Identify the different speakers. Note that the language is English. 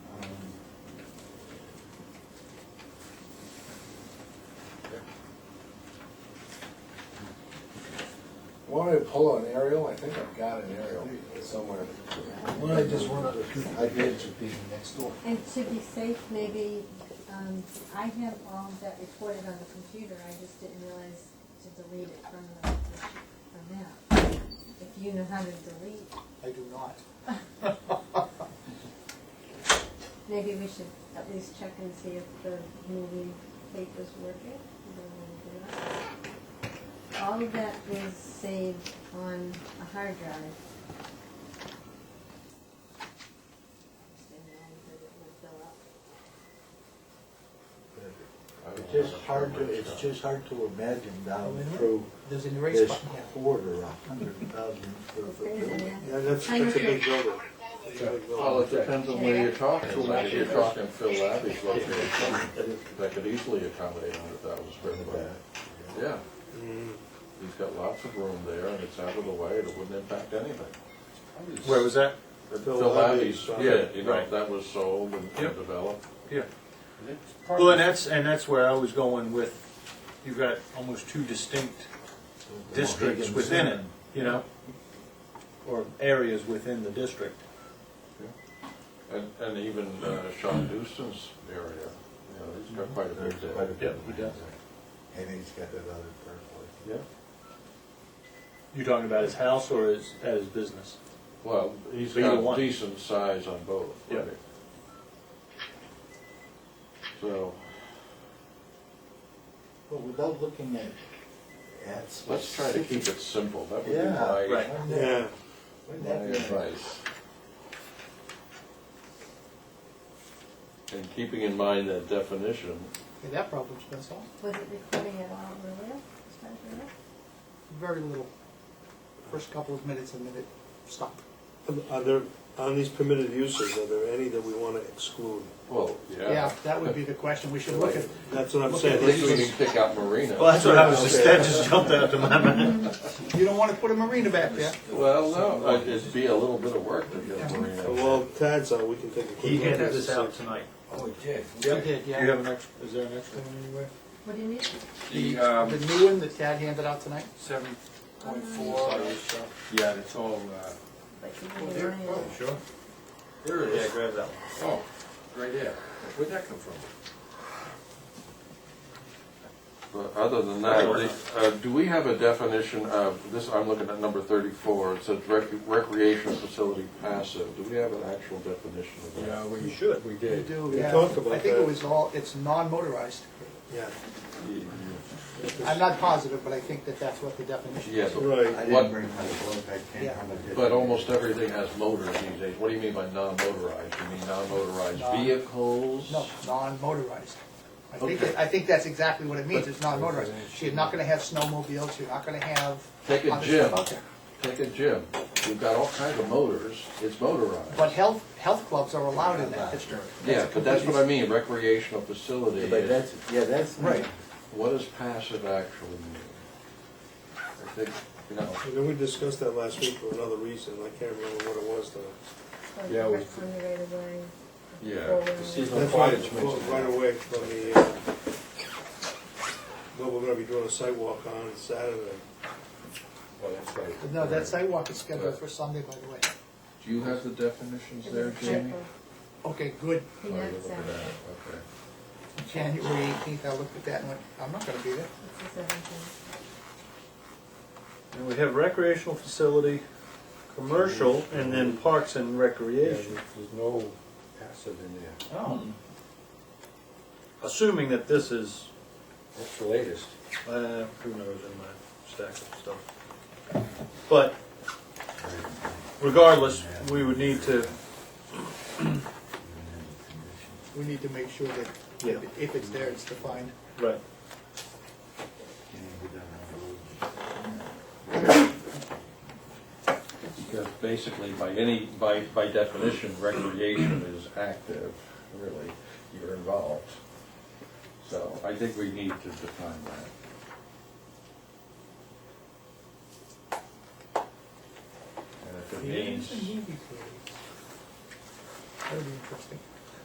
Speaker 1: Want me to pull an aerial? I think I've got an aerial somewhere.
Speaker 2: Um, Well, I just one other thing, I did to be next door.
Speaker 3: And to be safe, maybe, um, I have all of that recorded on the computer, I just didn't realize to delete it from the, from that. If you know how to delete,
Speaker 2: I do not.
Speaker 3: maybe we should at least check and see if the movie papers working. I don't know if they are. All of that is saved on a hard drive. Just didn't realize that it would fill up.
Speaker 4: It's just hard to, it's just hard to imagine down through
Speaker 5: There's an erase
Speaker 4: this
Speaker 5: button here.
Speaker 4: quarter, a hundred thousand square foot building.
Speaker 3: Yeah.
Speaker 4: Yeah, that's,
Speaker 3: I know.
Speaker 4: that's a big building.
Speaker 6: Well, it depends on where you're talking, if you're talking Phil Labby's located, that could easily accommodate a hundred thousand square foot. Yeah. He's got lots of room there, and it's out of the way, and it wouldn't impact anything.
Speaker 7: Where was that?
Speaker 4: Phil
Speaker 6: Phil Labby's,
Speaker 4: Labby's,
Speaker 6: yeah, you know,
Speaker 7: right.
Speaker 6: that was sold and and
Speaker 7: Yep.
Speaker 6: developed.
Speaker 7: Yeah. Well, and that's, and that's where I was going with, you've got almost two distinct districts
Speaker 4: Higgins
Speaker 7: within it,
Speaker 4: and-
Speaker 7: you know? Or areas within the district.
Speaker 6: And, and even uh, Sean Dustin's area, you know, he's got quite a
Speaker 4: There's
Speaker 6: bit
Speaker 4: quite a
Speaker 6: there.
Speaker 4: bit.
Speaker 7: he does.
Speaker 4: And he's got that other purple.
Speaker 6: Yeah,
Speaker 7: You talking about his house or his, at his business?
Speaker 6: well, he's
Speaker 7: Either
Speaker 6: got a
Speaker 7: one.
Speaker 6: decent size on both.
Speaker 7: Yeah.
Speaker 6: right? So,
Speaker 4: But without looking at, at.
Speaker 6: let's try to keep it simple, that would be
Speaker 4: Yeah.
Speaker 6: my,
Speaker 7: Right.
Speaker 4: Yeah.
Speaker 6: my advice. And keeping in mind that definition,
Speaker 5: Okay, that problem's been solved.
Speaker 3: Was it recording at all earlier? Is that earlier?
Speaker 5: Very little. First couple of minutes, and then it stopped.
Speaker 8: Are there, on these permitted uses, are there any that we want to exclude?
Speaker 6: well, yeah.
Speaker 5: that would be the question we should look at.
Speaker 8: That's what I'm
Speaker 5: Look
Speaker 8: saying.
Speaker 5: at
Speaker 6: At least
Speaker 8: This
Speaker 6: we
Speaker 8: is-
Speaker 6: can pick out Marina.
Speaker 7: Well, that's what I was just, that just jumped out to my mind.
Speaker 5: You don't want to put a marina back there.
Speaker 6: Well, no, it'd be a little bit of work to get Marina.
Speaker 8: Well, Tad's on, we can take a quick
Speaker 7: He
Speaker 8: look.
Speaker 7: handed this out tonight.
Speaker 2: Oh, it did.
Speaker 5: You did,
Speaker 7: Do you have an extra, is there an extra?
Speaker 3: What do you need?
Speaker 7: The,
Speaker 5: The new one that Tad handed out tonight?
Speaker 7: seven
Speaker 3: point
Speaker 7: four. Yeah, it's all, uh.
Speaker 3: Like you need to run it.
Speaker 7: Sure. Here it is. Yeah, grab that one.
Speaker 6: Oh, right there. Where'd that come from? But other than that, the- uh, do we have a definition of, this, I'm looking at number thirty-four, it says rec- recreational facility passive. Do we have an actual definition of that?
Speaker 7: we should. We
Speaker 5: You do,
Speaker 8: We
Speaker 5: yeah.
Speaker 8: talked about
Speaker 5: I think it
Speaker 8: that.
Speaker 5: was all, it's non-motorized.
Speaker 8: Yeah.
Speaker 5: I'm not positive, but I think that that's what the definition
Speaker 6: Yeah,
Speaker 5: is.
Speaker 6: but-
Speaker 8: Right.
Speaker 2: I
Speaker 6: What-
Speaker 2: didn't bring my book, I can't.
Speaker 5: Yeah.
Speaker 6: but almost everything has motors these days. What do you mean by non-motorized? You mean non-motorized
Speaker 5: Non-
Speaker 6: vehicles?
Speaker 5: No, non-motorized. I think,
Speaker 6: Okay.
Speaker 5: I think that's exactly what it means, it's non-motorized. You're not gonna have snowmobiles, you're not gonna have
Speaker 6: Take a
Speaker 5: other stuff
Speaker 6: gym,
Speaker 5: out there.
Speaker 6: take a gym. You've got all kinds of motors, it's motorized.
Speaker 5: But health, health clubs are allowed in that district.
Speaker 6: Yeah, but that's what I mean, recreational facility
Speaker 4: But
Speaker 6: is
Speaker 4: that's, yeah, that's.
Speaker 5: Right.
Speaker 6: What does passive actually mean? I think, you know,
Speaker 8: And then we discussed that last week for another reason, I can't remember what it was though.
Speaker 3: Or
Speaker 6: Yeah, we-
Speaker 3: direct on the right of way.
Speaker 6: yeah,
Speaker 3: Or-
Speaker 8: That's why it's right away from the, uh, what we're gonna be doing a sidewalk on Saturday.
Speaker 5: No, that sidewalk is scheduled for Sunday, by the way.
Speaker 6: do you have the definitions
Speaker 3: Is
Speaker 6: there,
Speaker 3: it
Speaker 6: Jamie?
Speaker 3: check
Speaker 5: Okay, good,
Speaker 3: or-
Speaker 6: Oh,
Speaker 3: Yeah,
Speaker 6: you're
Speaker 3: it's
Speaker 6: looking at
Speaker 3: out.
Speaker 6: it, Okay.
Speaker 5: January eighteenth, I looked at that and went, I'm not gonna be there.
Speaker 3: It's the seventeenth.
Speaker 9: And we have recreational facility, commercial, and then parks and recreation.
Speaker 2: There's no passive in there,
Speaker 9: Oh. Assuming that this is,
Speaker 2: that's the latest.
Speaker 9: uh, who knows in my stack of stuff. But regardless, we would need to,
Speaker 5: We need to make sure that
Speaker 9: Yeah.
Speaker 5: if it's there, it's defined.
Speaker 9: right,
Speaker 6: Because basically, by any, by, by definition, recreation is active, really, you're involved. So I think we need to define that. And if it means,
Speaker 5: That'd be interesting.